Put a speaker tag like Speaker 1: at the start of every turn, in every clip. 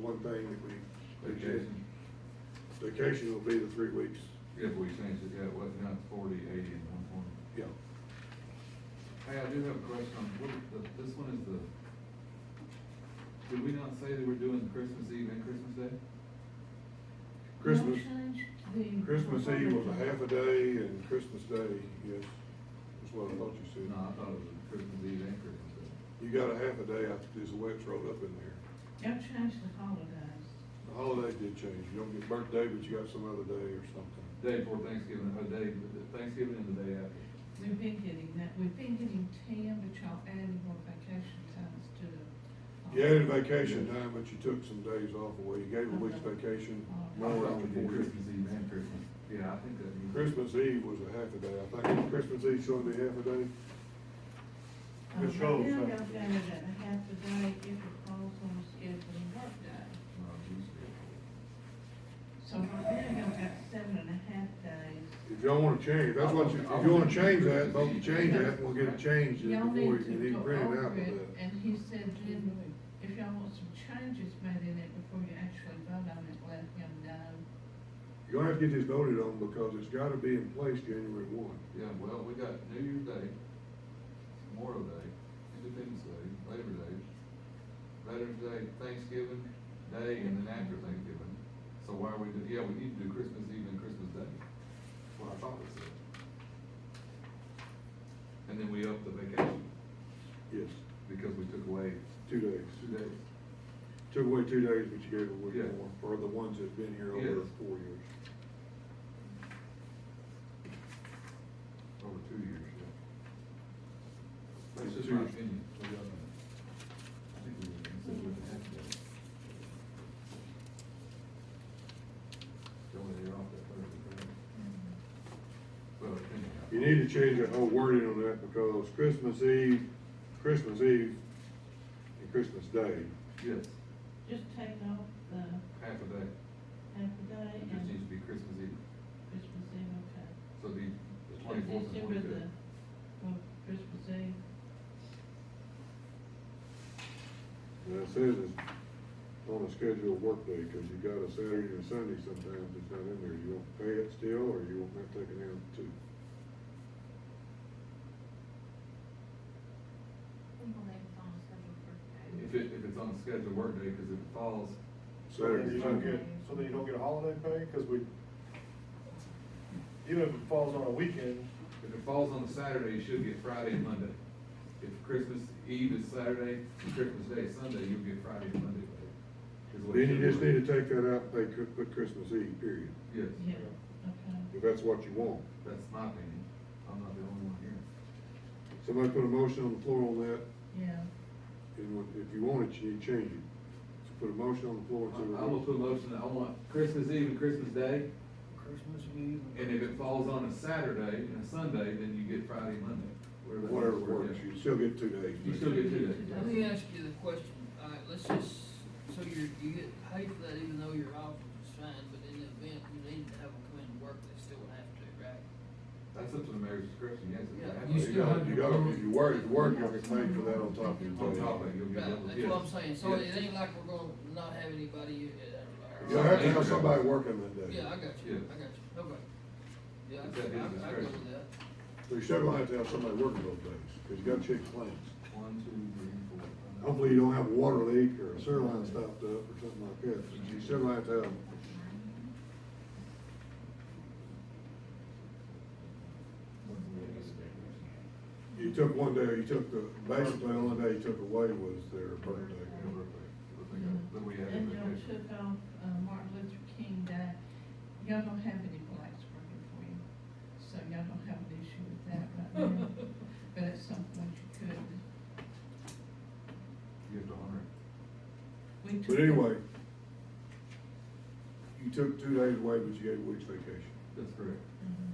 Speaker 1: one thing that we.
Speaker 2: Vacation.
Speaker 1: Vacation will be the three weeks,
Speaker 2: If we change it, yeah, what, not forty, eighty, and one twenty?
Speaker 1: yeah.
Speaker 2: Hey, I do have a question on, what, the- this one is the, did we not say that we're doing Christmas Eve and Christmas Day?
Speaker 1: Christmas,
Speaker 3: The-
Speaker 1: Christmas Eve was a half a day and Christmas Day, yes, that's what I thought you said.
Speaker 2: No, I thought it was Christmas Eve and Christmas Day.
Speaker 1: You got a half a day after this wet's rolled up in there.
Speaker 3: Don't change the holidays.
Speaker 1: The holidays did change, you don't get birthday, but you got some other day or something.
Speaker 2: Day before Thanksgiving, a day, Thanksgiving and the day after.
Speaker 3: We've been getting that, we've been getting ten, but y'all added more vacation times to the.
Speaker 1: You added vacation time, but you took some days off away, you gave a week's
Speaker 3: Okay.
Speaker 1: vacation. more
Speaker 2: I
Speaker 1: on
Speaker 2: thought we
Speaker 1: the 40.
Speaker 2: did Christmas Eve and Christmas, yeah, I think that. means-
Speaker 1: Christmas Eve was a half a day, I think Christmas Eve's gonna be half a day.
Speaker 3: Uh,
Speaker 1: Ms. Rhodes,
Speaker 3: Now
Speaker 1: uh,
Speaker 3: y'all got it at a half a day if it falls on a scheduled work day.
Speaker 2: No, Tuesday.
Speaker 3: So right now y'all got seven and a half days.
Speaker 1: If y'all wanna change, that's what you, if you wanna change that, vote to change that, and we'll get it changed before
Speaker 3: Y'all need
Speaker 1: you
Speaker 3: to
Speaker 1: can
Speaker 3: go
Speaker 1: even print it out with
Speaker 3: over it,
Speaker 1: that.
Speaker 3: and he said then, if y'all want some changes made in it before you actually vote on it, let him know.
Speaker 1: You're gonna have to get this voted on because it's gotta be in place January one.
Speaker 2: Yeah, well, we got New Year's Day, Memorial Day, Independence Day, Labor Day, Veterans Day, Thanksgiving Day, and then after Thanksgiving. So why are we, do- yeah, we need to do Christmas Eve and Christmas Day. That's What I thought we said. And then we upped the vacation
Speaker 1: Yes,
Speaker 2: because we took away
Speaker 1: two days.
Speaker 2: two days.
Speaker 1: Took away two days, but you gave a
Speaker 2: Yeah.
Speaker 1: week more for the ones that've been here over
Speaker 2: Yes.
Speaker 1: four years.
Speaker 2: Over two years, yeah. That's
Speaker 1: It's
Speaker 2: just
Speaker 1: two
Speaker 2: my
Speaker 1: years.
Speaker 2: opinion. What do y'all think? I think we would consider it a half day. Don't let it off that Thursday, Friday. Well, opinion.
Speaker 1: You need to change the whole wording on that because Christmas Eve, Christmas Eve and Christmas Day,
Speaker 2: Yes,
Speaker 3: Just take off the
Speaker 2: half a day.
Speaker 3: half a day
Speaker 2: It just needs to
Speaker 3: and
Speaker 2: be Christmas Eve.
Speaker 3: Christmas Eve, okay.
Speaker 2: So it'd be the twenty-fourth and
Speaker 3: December
Speaker 2: twenty-fifth.
Speaker 3: the, well, Christmas Eve,
Speaker 1: and it says it's on a scheduled work day, cause you got a Saturday and a Sunday sometimes it's not in there. You won't pay it still, or you won't have to take it out too.
Speaker 4: We believe it's on a scheduled birthday.
Speaker 2: If it, if it's on scheduled work day, because if it falls,
Speaker 5: So then
Speaker 1: Saturday,
Speaker 5: you don't get,
Speaker 1: Sunday.
Speaker 5: so then you don't get a holiday pay, cause we, even if it falls on a weekend,
Speaker 2: if it falls on a Saturday, you should get Friday and Monday. If Christmas Eve is Saturday and Christmas Day is Sunday, you'll get Friday and Monday paid. is what
Speaker 1: Then
Speaker 2: it
Speaker 1: you
Speaker 2: should
Speaker 1: just
Speaker 2: be.
Speaker 1: need to take that out, and pay, put Christmas Eve, period,
Speaker 2: Yes,
Speaker 3: yeah, okay.
Speaker 1: if that's what you want.
Speaker 2: that's my opinion. I'm not the only one here.
Speaker 1: Somebody put a motion on the floor on that,
Speaker 3: Yeah,
Speaker 1: and when- if you want it, you need to change it. So put a motion on the floor. and see what-
Speaker 2: I I will put a motion that I want Christmas Eve and Christmas Day,
Speaker 6: Christmas Eve.
Speaker 2: and if it falls on a Saturday and a Sunday, then you get Friday, and Monday. whatever that
Speaker 1: Whatever
Speaker 2: is.
Speaker 1: works,
Speaker 2: Yeah.
Speaker 1: you still get two days.
Speaker 2: You still get two days.
Speaker 6: Let me ask you the question, all right, let's just, so you're, you get paid for that even though you're off, which is fine, but in the event you need to have them come in and work, they still would have to, right?
Speaker 2: That's up to the mayor's discretion, yes. if
Speaker 6: Yeah,
Speaker 2: they have to.
Speaker 6: you
Speaker 1: You
Speaker 6: still
Speaker 1: gotta,
Speaker 6: have
Speaker 1: you
Speaker 6: to
Speaker 1: gotta,
Speaker 6: go-
Speaker 1: if you work, if you work, you'll get paid for that on top of your
Speaker 2: On
Speaker 1: pay.
Speaker 2: top of it, you'll get. double-
Speaker 6: Right, that's what I'm
Speaker 2: yes.
Speaker 6: saying, so it
Speaker 2: Yes.
Speaker 6: ain't like we're gonna not have anybody. uh, uh,
Speaker 1: You'll have to have somebody working that day.
Speaker 6: Yeah, I got you, I got you, okay. Yeah, I, I, I go with that.
Speaker 1: So you still gonna have to have somebody working those days, cause you gotta check plants.
Speaker 2: One, two, three, four. five.
Speaker 1: Hopefully you don't have a water leak or a sewer line stopped up or something like that, but you still gonna have to have You took one day, you took the, basically the only day you took away was their birthday.
Speaker 2: But we had.
Speaker 3: and y'all took off, uh, Martin Luther King Day, y'all don't have any blacks working for you, so y'all don't have an issue with that right now, but at some point you could.
Speaker 2: You have to honor it.
Speaker 3: We
Speaker 1: But
Speaker 3: took-
Speaker 1: anyway, you took two days away, but you gave a week's vacation.
Speaker 2: That's correct.
Speaker 3: Mhm.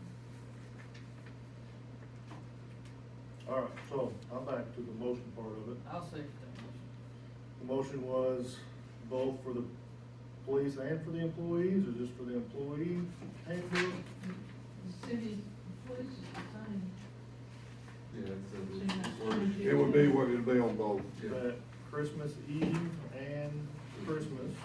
Speaker 5: All right, so I'm back to the motion part of it.
Speaker 6: I'll second that motion.
Speaker 5: The motion was both for the police and for the employees, or just for the employee handbook?
Speaker 3: The city, what is it, sign?
Speaker 2: Yeah, it's,
Speaker 3: So
Speaker 2: uh,
Speaker 3: that's
Speaker 2: it's ordered.
Speaker 3: true.
Speaker 1: It would be what it'd be on both.
Speaker 2: Yeah.
Speaker 5: That Christmas Eve and Christmas.